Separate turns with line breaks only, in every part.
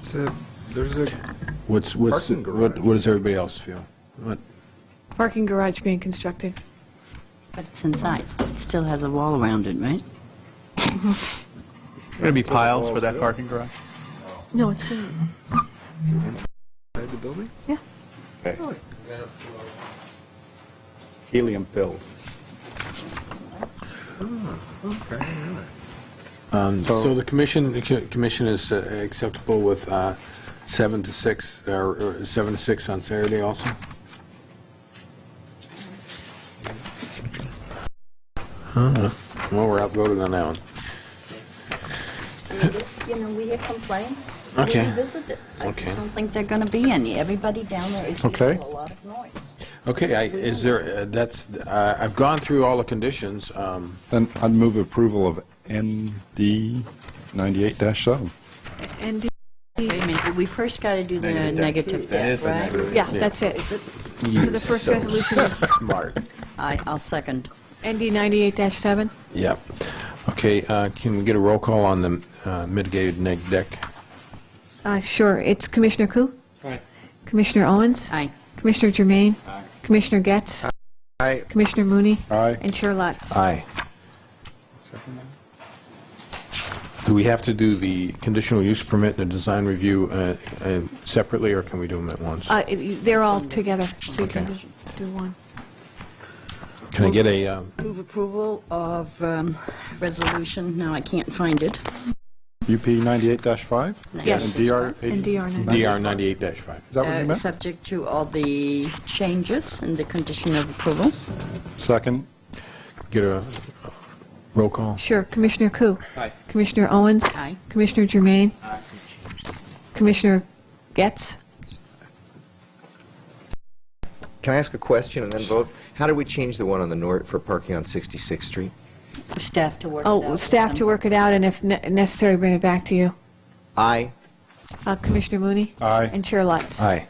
It's a, there's a,
What's, what's,
Parking
what,
garage.
what does everybody else feel? What,
Parking garage being constructed.
But it's inside. It still has a wall around it, right?
Going to be piles for that parking garage?
No, it's good.
is it inside the building?
helium filled.
Okay, really.
um,
Oh.
so the commission, the co- commission is uh, acceptable with, uh, seven to six, uh, or, or seven to six on Saturday also? Uh, Well, we're outvoted on that one.
It is, you know, we have complaints.
Okay.
We revisit it. I
Okay.
just don't think they're going to be any. Everybody down there is making
Okay.
a lot of noise.
Okay, I, is there, uh, that's, uh, I've gone through all the conditions, um,
Then I'd move approval of ND 98-7.
And,
Wait a minute, we first got to
Uh,
do the negative debt, right?
yeah, that's it.
Is it?
So the first resolution is
smart.
I, I'll second.
ND 98-7.
Yep. Okay, uh, can we get a roll call on the uh, mitigated neg deck?
Uh, Sure, it's Commissioner Koo? Commissioner Owens?
Aye.
Commissioner Germain? Commissioner Getz?
Aye.
Commissioner Mooney?
Aye.
And Chair Lutz?
Aye. Do we have to do the conditional use permit and the design review uh, uh, separately, or can we do them at once?
Uh, it- They're all together, so you can just do one.
Can I get a, um,
Move approval of um, resolution. Now I can't find it.
UP 98-5?
Yes.
And DR
And
80?
DR
DR
98.
98-5?
Is that what
Uh,
you meant?
Subject to all the changes and the condition of approval.
Second.
Get a roll call?
Sure, Commissioner Koo? Commissioner Owens?
Aye.
Commissioner Germain? Commissioner Getz?
Can I ask a question and then vote? How do we change the one on the north for parking on 66th Street?
Staff to work it out
Oh,
with
staff to
them.
work it out, and if ne- necessary, bring it back to you.
I,
Uh, Commissioner Mooney?
Aye.
And Chair Lutz?
Aye.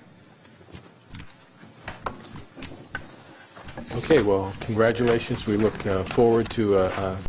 Okay, well, congratulations. We look uh, forward to uh, uh